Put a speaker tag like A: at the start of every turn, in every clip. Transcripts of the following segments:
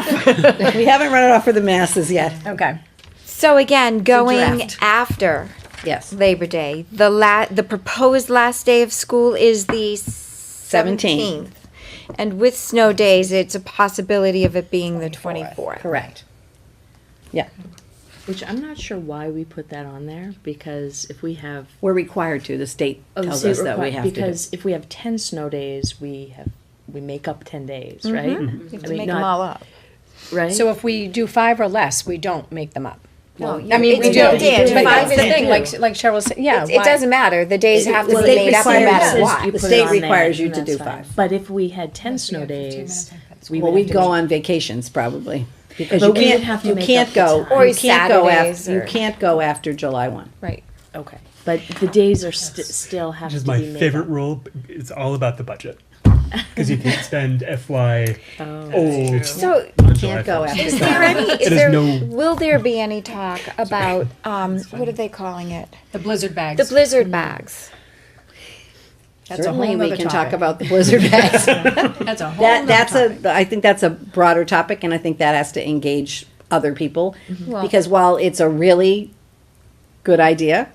A: We haven't run it off for the masses yet.
B: Okay.
C: So again, going
A: draft.
C: after
A: Yes.
C: Labor Day, the la, the proposed last day of school is the seventeenth. And with snow days, it's a possibility of it being the twenty-fourth.
B: Correct.
A: Yeah,
D: Which I'm not sure why we put that on there, because if we have.
A: we're required to. The state
D: oh,
A: tells
D: state
A: us that we
D: requi-
A: have to. do.
D: Because if we have ten snow days, we have, we make up ten days, right?
C: You Mm-hmm. have
D: I
C: to
D: mean,
C: make
D: not-
C: them all up.
D: Right?
B: So if we do five or less, we don't make them up.
C: No,
B: I mean,
C: it's
B: we do.
C: no dance.
B: But
C: Five
B: that's the
C: is
B: thing,
C: due.
B: like, like Cheryl said, yeah.
C: It
B: why-
C: doesn't matter. The days have to
A: well,
C: be
A: they
C: made up no
A: require us-
C: matter what.
A: The
D: put it
A: state
D: on there,
A: requires you
D: and
A: to
D: that's
A: do
D: fine.
A: five.
D: But if we had ten snow days, we
A: Well,
D: would
A: we
D: have to
A: go
D: make-
A: on vacations probably. Because
D: But
A: you
D: we would
A: can't,
D: have to
A: you
D: make
A: can't
D: up the
A: go,
D: time.
C: Or
A: you can't go
C: Saturdays
A: after, you
C: or-
A: can't go after July one.
B: Right.
D: Okay, but the days are st- still have
E: Which
D: to
E: is
D: be
E: my
D: made
E: favorite
D: up.
E: rule. b- It's all about the budget. Because you can't spend FY
D: Oh,
E: old.
C: So
E: on July
A: Can't go
E: 1st.
A: after.
C: is
A: July
C: there any, is
E: There's
C: there,
E: no-
C: will there be any talk about, um, what are they calling it?
F: The blizzard bags.
C: The blizzard bags.
B: That's a whole
A: Certainly, we
B: nother
A: can talk
B: topic.
A: about the blizzard bags.
F: That's a whole
A: That,
F: nother
A: that's
F: topic.
A: a, I think that's a broader topic, and I think that has to engage other people.
F: Mm-hmm.
C: Well-
A: Because while it's a really good idea,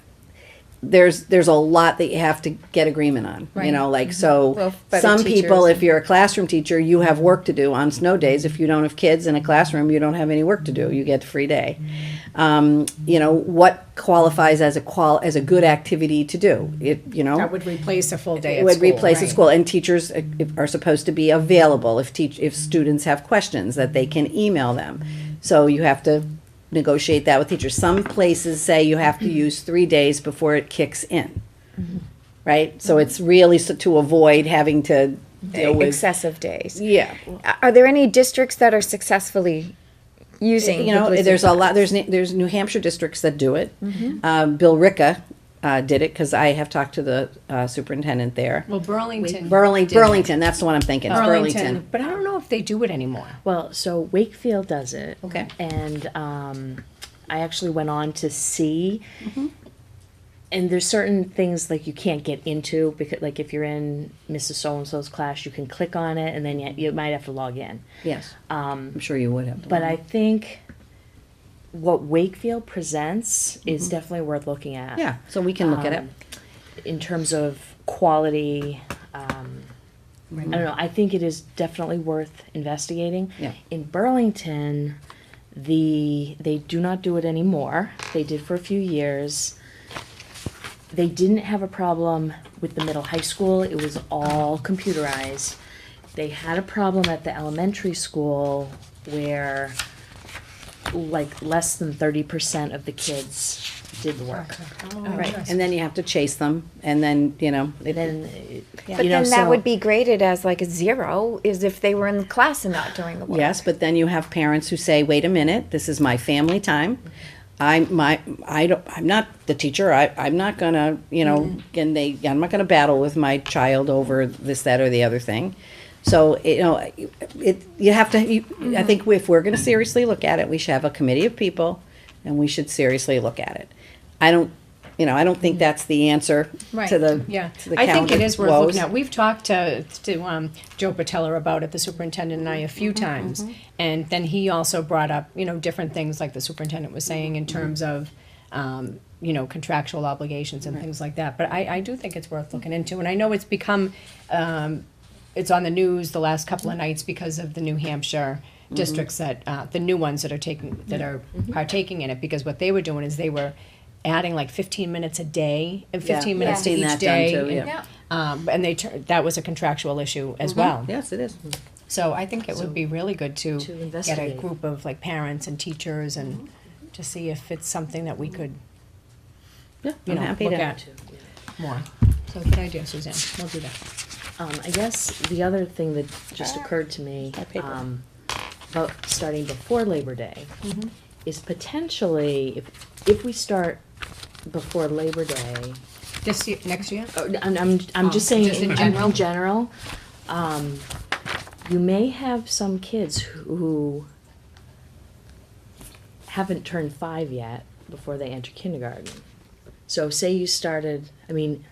A: there's, there's a lot that you have to get agreement on, you know, like,
F: Mm-hmm.
C: Well,
A: so.
C: by the
A: Some people,
C: teachers.
A: if you're a classroom teacher, you have work to do on snow days. If you don't have kids in a classroom, you don't have any work to do. You get free day.
F: Mm-hmm.
A: Um, you know, what qualifies as a qual, as a good activity to do? It, you know?
B: That would replace a full day
A: It
B: at
A: would
B: school,
A: replace a
B: right.
A: school, and teachers uh, if- are supposed to be available if teach, if students have questions, that they can email them. So you have to negotiate that with teachers. Some places say you have to use three days before it kicks in, right? So it's really so to avoid having to deal with,
C: Excessive days.
A: yeah.
C: Are there any districts that are successfully using?
A: You
C: the
A: know,
C: blizzard
A: there's a
C: bags?
A: lot, there's, Ni- there's New Hampshire districts that do it. Um, Bill Ricka, uh, did it, cause I have talked to the, uh, superintendent there.
F: Well, Burlington.
A: Burlington,
F: did-
A: Burlington, that's the one I'm thinking, It's Burlington.
B: But I don't know if they do it anymore.
D: Well, so Wakefield does it.
A: Okay.
D: And um, I actually went on to see.
A: Mm-hmm.
D: And there's certain things like you can't get into because like if you're in Mrs. So and So's class, you can click on it, and then you, you might have to log in.
A: Yes. I'm sure you would have.
D: Um, But I think what Wakefield presents is definitely worth looking at.
A: Mm-hmm. Yeah, so we can look at it.
D: um, in terms of quality. Um, I don't know. I think it is definitely worth investigating.
A: Yeah.
D: In Burlington, the they do not do it anymore. They did for a few years. They didn't have a problem with the middle high school. It was all computerized. They had a problem at the elementary school where like less than 30% of the kids did the work.
A: Oh, Right, and then you have to chase them, and then, you know, it-
D: Then
C: But then that would be graded as like a zero, is if they were in the class and not doing the work.
A: yes, but then you have parents who say, wait a minute, this is my family time. I, my, I don't, I'm not the teacher, I, I'm not gonna, you
B: Mm-hmm.
A: know, and they, I'm not gonna battle with my child over this, that, or the other thing. So, you know, it, you have to, you, I
B: Mm-hmm.
A: think if we're gonna seriously look at it, we should have a committee of people, and we should seriously look at it. I don't, you know, I don't think that's the answer
B: Mm-hmm. Right.
A: to the,
B: yeah.
A: to the
B: I think it
A: calendar
B: is worth
A: woes.
B: looking at. We've talked to to um, Joe Patella about it, the superintendent and I,
A: Mm-hmm,
B: a few times, and then he also brought up you know different things like the superintendent was saying
A: Mm-hmm.
B: in terms of. Um, you know contractual obligations and things like that, but I, I do think it's worth looking into, and I know it's become um, it's on the news the last couple of nights because of the New Hampshire districts that, uh, the new ones that are taking, that are partaking in it, because what they were doing is they were adding like fifteen minutes a day and
A: Yeah,
B: fifteen
A: I've
B: minutes to
A: seen
B: each
A: that done
B: day.
A: too,
B: and,
A: yeah.
B: Um, and they, tur- that was a contractual issue as well.
A: Yes, it is.
B: Mm-hmm. So I think it would be really good to
D: To
B: get a
D: investigate.
B: group of like parents and teachers and to see if it's something that we could,
A: Yeah,
B: you
A: I'm
B: know,
A: happy
B: look
A: to.
B: at more. So good idea, Suzanne, we'll do that.
D: Um, I guess the other thing that
C: Ah.
D: just occurred to me,
A: paper.
D: um, about starting before Labor Day
C: Mm-hmm.
D: is potentially, if, if we start before Labor Day,
B: This year, next year?
D: oh, I'm, I'm, I'm just
B: Oh,
D: saying
B: just
D: in,
B: in
D: in
B: general?
D: general, um, you may have some kids who- who haven't turned five yet before they enter kindergarten. So say you started, I mean,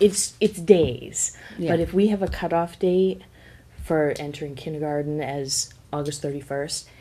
D: it's, it's days,
A: Yeah.
D: but if we have a cutoff date for entering kindergarten as August thirty-first,